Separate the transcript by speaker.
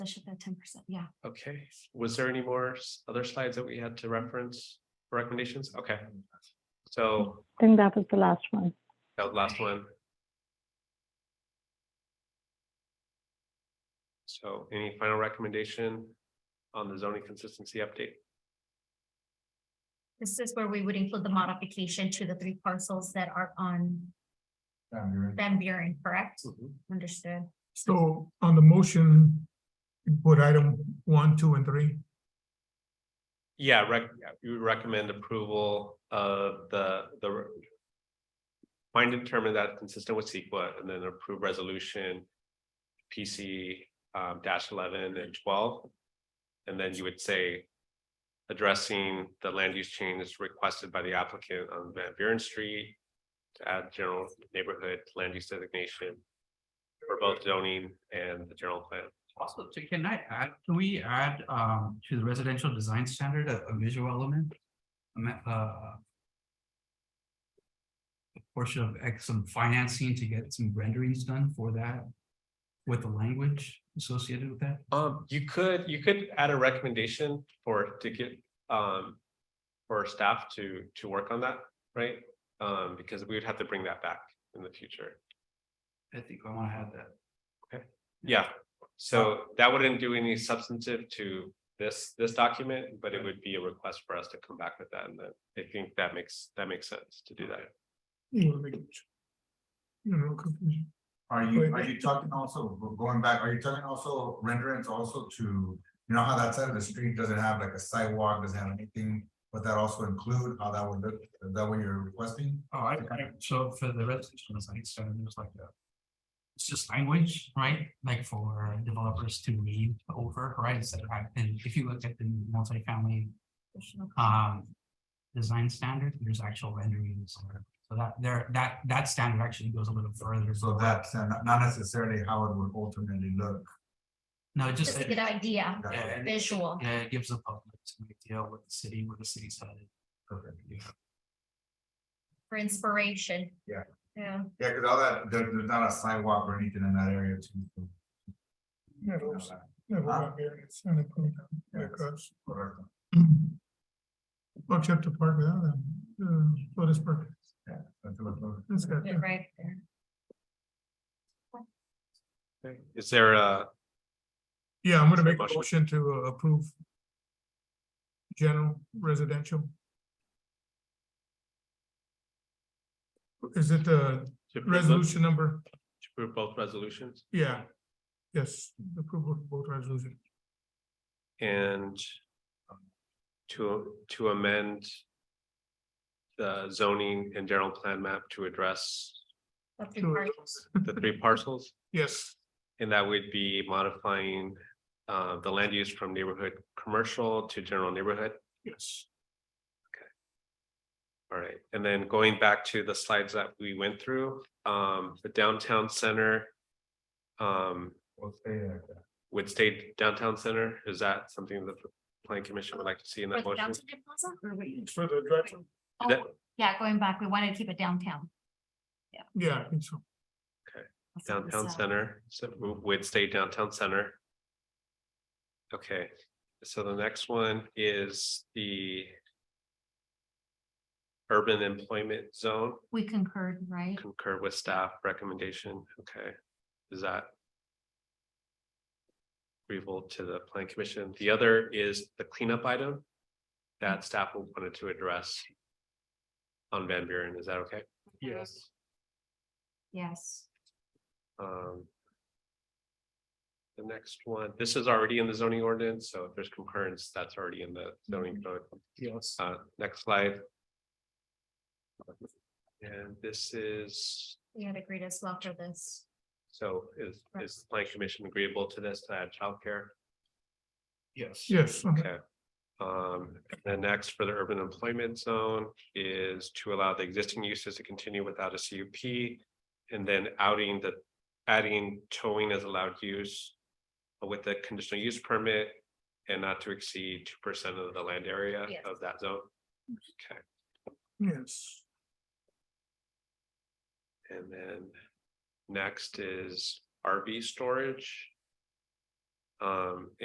Speaker 1: I should that ten percent, yeah.
Speaker 2: Okay, was there any more s- other slides that we had to reference for recommendations? Okay. So
Speaker 3: I think that was the last one.
Speaker 2: that was the last one. So any final recommendation on the zoning consistency update?
Speaker 1: This is where we would include the modification to the three parcels that are on Van Buren, correct? Understood.
Speaker 4: So on the motion, you put item one, two, and three.
Speaker 2: Yeah, rec, yeah, you would recommend approval of the, the. re- Find and determine that consistent with SEQA and then approve resolution. PC um, dash eleven and twelve. And then you would say. Addressing the land use change requested by the applicant on Van Buren Street. To add general neighborhood land use designation. For both zoning and the general plan.
Speaker 5: Also, so can I add, can we add um to the residential design standard a a visual element? A ma- uh, a Portion of X, some financing to get some renderings done for that. With the language associated with that,
Speaker 2: Um, you could, you could add a recommendation for to get, um. For staff to, to work on that, right? Um, because we would have to bring that back in the future.
Speaker 5: I think I want to have that.
Speaker 2: Yeah, so that wouldn't do any substantive to this, this document, but it would be a request for us to come back with that. And then I think that makes, that makes sense to do that.
Speaker 4: You wanna make it- you know, confusion.
Speaker 6: Are you, are you talking also, going back, are you talking also renderings also to, you know how that side of the street doesn't have like a sidewalk, doesn't have anything? Would that also include how that would look, is that what you're requesting?
Speaker 5: Oh, I, I- so for the residential design standard, there's like a. It's just language, right? Like for developers to read over, right? Instead of, having- and if you looked at the multifamily um, design standard, there's actual renderings. or- So that there, that, that standard actually goes a little further.
Speaker 6: So that's uh, not not necessarily how it would ultimately look.
Speaker 5: No, it just,
Speaker 1: Just a good
Speaker 5: yeah,
Speaker 1: idea,
Speaker 5: and it-
Speaker 1: visual.
Speaker 5: yeah, it gives the public some idea what the city, where the city's headed.
Speaker 1: for inspiration.
Speaker 6: Yeah.
Speaker 1: Yeah,
Speaker 6: Yeah, because all that, there, there's not a sidewalk or anything in that area too.
Speaker 4: Never was- never got variance and it put down like us.
Speaker 6: Correct.
Speaker 4: I'll check the park without them, uh, for this park,
Speaker 6: That's what it looks.
Speaker 4: that's got,
Speaker 1: they're right there.
Speaker 2: Is there a,
Speaker 4: yeah, I'm gonna make a
Speaker 2: Motion.
Speaker 4: motion to uh, approve. General residential. Is it the
Speaker 2: to approve both-
Speaker 4: resolution number?
Speaker 2: to approve both resolutions
Speaker 4: Yeah, yes, approval of both resolution.
Speaker 2: and. To, to amend. The zoning and general plan map to address
Speaker 1: The three
Speaker 4: Sure.
Speaker 1: parcels.
Speaker 2: the three parcels,
Speaker 4: Yes,
Speaker 2: and that would be modifying uh the land use from neighborhood commercial to general neighborhood.
Speaker 4: yes.
Speaker 2: All right, and then going back to the slides that we went through, um, the downtown center. Um,
Speaker 6: We'll stay like that.
Speaker 2: would stay downtown center, is that something that the planning commission would like to see in that
Speaker 1: Like
Speaker 2: motion?
Speaker 1: downtown plaza, or wait,
Speaker 4: For the drive,
Speaker 2: Is that-
Speaker 1: Yeah, going back, we wanted to keep it downtown.
Speaker 4: yeah, I think so.
Speaker 1: That's what this,
Speaker 2: Downtown
Speaker 1: uh,
Speaker 2: center, so we would stay downtown center. Okay, so the next one is the. Urban employment zone
Speaker 1: We concurred, right?
Speaker 2: concur with staff recommendation, okay, is that? Agreeable to the plan commission, the other is the cleanup item. That staff wanted to address. On Van Buren, is that okay?
Speaker 5: Yes.
Speaker 1: Yes.
Speaker 2: Um. The next one, this is already in the zoning ordinance, so if there's concurrence, that's already in the zoning code.
Speaker 5: Yes.
Speaker 2: Uh, next slide. And this is,
Speaker 1: We had agreed as well for this.
Speaker 2: so is, is the planning commission agreeable to this, to add childcare?
Speaker 5: Yes.
Speaker 4: Yes, okay.
Speaker 2: Okay. Um, the next for the urban employment zone is to allow the existing uses to continue without a CUP. And then outing the, adding towing as allowed use with a conditional use permit and not to exceed two percent of the land area
Speaker 1: Yes.
Speaker 2: of that zone. Okay,
Speaker 4: yes,
Speaker 2: and then next is RV storage. Um,